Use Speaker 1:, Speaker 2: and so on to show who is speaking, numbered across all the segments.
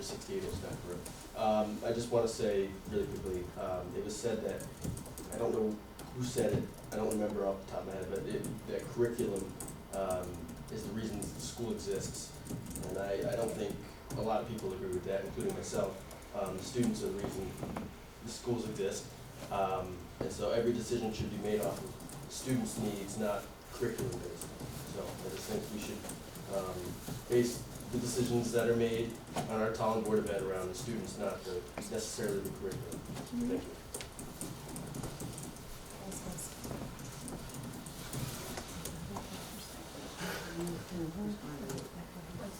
Speaker 1: sixty-eight Old Stafford Road. Um, I just wanna say really quickly, um, it was said that, I don't know who said it, I don't remember off the top of my head, but it, that curriculum, um, is the reason the school exists. And I, I don't think a lot of people agree with that, including myself. Um, students are the reason the schools exist. Um, and so every decision should be made off of students' needs, not curriculum based. So I just think we should, um, base the decisions that are made on our town board of ed around the students, not the, necessarily the curriculum. Thank you.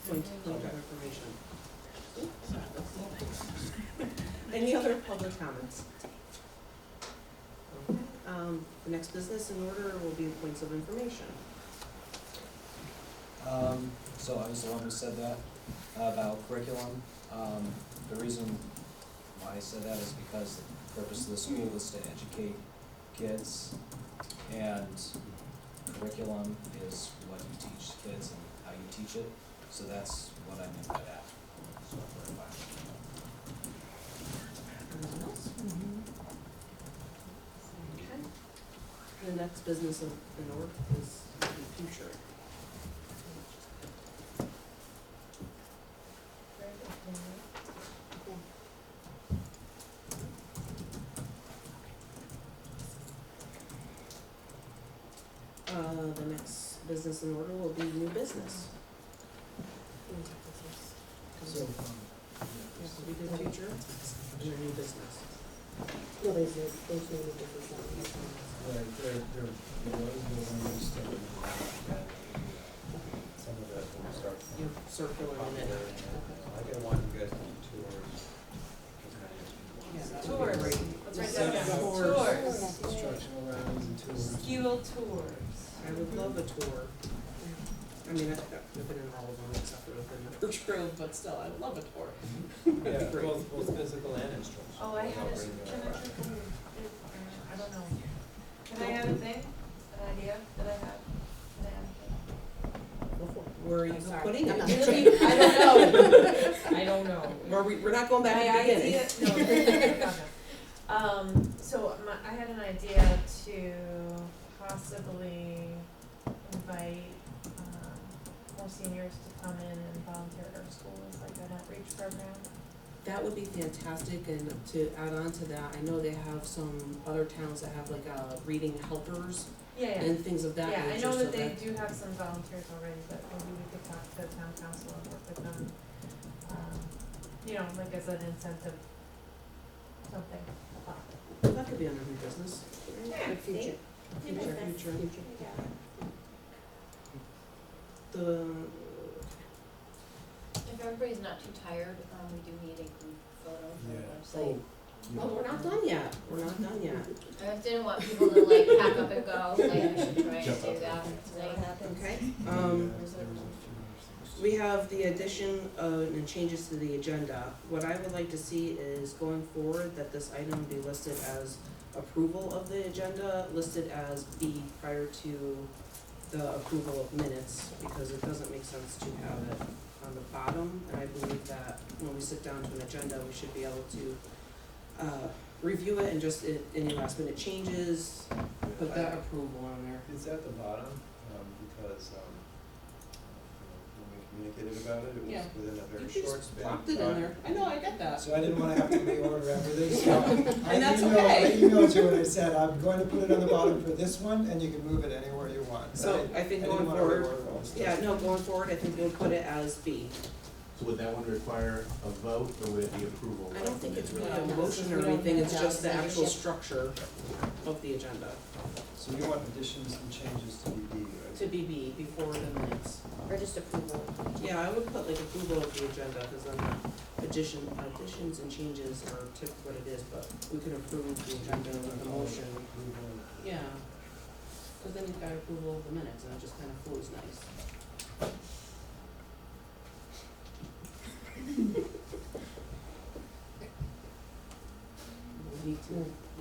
Speaker 2: Point of information. Any other public comments? Um, the next business in order will be points of information.
Speaker 3: Um, so I was the one who said that about curriculum. Um, the reason why I said that is because the purpose of the school is to educate kids and curriculum is what you teach kids and how you teach it. So that's what I meant by that. So I clarified.
Speaker 2: Anyone else? Okay. The next business in in order is the future. Uh, the next business in order will be new business.
Speaker 4: So, um,
Speaker 2: Yeah, we did future, and then new business.
Speaker 4: No, there's, there's no difference on these ones.
Speaker 5: Right, there, there, there was the one we started with, that, uh, some of that will start
Speaker 2: You're circular in
Speaker 5: popular.
Speaker 2: it.
Speaker 5: and uh, I didn't want you guys to do tours. because I just-
Speaker 6: Tours.
Speaker 2: Right.
Speaker 6: Let's write that down.
Speaker 2: Tours.
Speaker 6: Tours.
Speaker 5: Instructional rounds and tours.
Speaker 6: Skill tours.
Speaker 2: I would love a tour. I mean, I've I've been in all of them except for within the Birch Grove, but still, I would love a tour.
Speaker 5: Yeah,
Speaker 2: That'd be great.
Speaker 5: both, both physical and instructional.
Speaker 6: Oh, I had a, can I,
Speaker 5: Right.
Speaker 6: just- I don't know. Can I add a thing, an idea that I have? Can I add a thing?
Speaker 2: Where are you
Speaker 6: I'm sorry.
Speaker 2: putting
Speaker 4: I'm not
Speaker 2: it?
Speaker 4: sure.
Speaker 6: Really? I don't know. I don't
Speaker 2: Where
Speaker 6: know.
Speaker 2: we, we're not going back to
Speaker 6: My
Speaker 2: the beginning.
Speaker 6: idea, no, no, no, no. Um, so my, I had an idea to possibly invite, um, more seniors to come in and volunteer at our school as like an outreach program.
Speaker 2: That would be fantastic, and to add on to that, I know they have some other towns that have like, uh, reading helpers
Speaker 6: Yeah, yeah.
Speaker 2: and things of that
Speaker 6: Yeah, I
Speaker 2: nature,
Speaker 6: know
Speaker 2: so
Speaker 6: that they
Speaker 2: that,
Speaker 6: do have some volunteers already, but maybe we could talk to the town council and work with them, um, you know, like as an incentive, something.
Speaker 2: that could be under new business.
Speaker 6: Yeah,
Speaker 4: Future.
Speaker 6: New
Speaker 4: Future.
Speaker 6: business.
Speaker 4: Future.
Speaker 2: The,
Speaker 7: If everybody's not too tired, um, we do need a group photo
Speaker 5: Yeah.
Speaker 7: for the
Speaker 5: Oh,
Speaker 7: website.
Speaker 2: oh, we're not done yet, we're not done yet.
Speaker 7: I just didn't want people to like pack up and go, like, we should try and
Speaker 1: Jump out
Speaker 7: do that
Speaker 4: That
Speaker 7: tonight.
Speaker 4: happens.
Speaker 2: Okay,
Speaker 5: yeah,
Speaker 2: um,
Speaker 5: there was a few other things.
Speaker 2: We have the addition of, and changes to the agenda. What I would like to see is going forward that this item be listed as approval of the agenda, listed as B prior to the approval of minutes, because it doesn't make sense to have it on the bottom. And I believe that when we sit down to an agenda, we should be able to, uh, review it and just, i- any last minute changes, put that approval on there.
Speaker 5: It's at the bottom, um, because, um, you know, when we communicated about it, it
Speaker 2: Yeah.
Speaker 5: was within a
Speaker 2: You
Speaker 5: very
Speaker 2: should
Speaker 5: short
Speaker 2: just
Speaker 5: span.
Speaker 2: plopped it in
Speaker 5: Uh,
Speaker 2: there. I know, I get that.
Speaker 5: So I didn't wanna have to reorder everything, so I
Speaker 2: And that's
Speaker 5: emailed, I
Speaker 2: okay.
Speaker 5: emailed you and I said, I'm going to put it on the bottom for this one, and you can move it anywhere you want. But
Speaker 2: So I think going forward,
Speaker 5: I didn't wanna reorder all the stuff.
Speaker 2: Yeah, no, going forward, I think we'll put it as B.
Speaker 1: So would that one require a vote or would it be approval?
Speaker 2: I don't think it's really a
Speaker 7: Yeah.
Speaker 2: motion or
Speaker 7: Yeah.
Speaker 2: anything, it's just the
Speaker 7: Yeah.
Speaker 2: actual structure of the agenda.
Speaker 5: So you want additions and changes to be D, right?
Speaker 2: To be B before the minutes.
Speaker 4: Or just approval.
Speaker 2: Yeah, I would put like approval of the agenda, cause then addition, additions and changes are typically what it is, but we can approve the agenda with a motion.
Speaker 5: Approval.
Speaker 2: Yeah, cause then you've got approval of the minutes, and it just kinda flows nice. We need to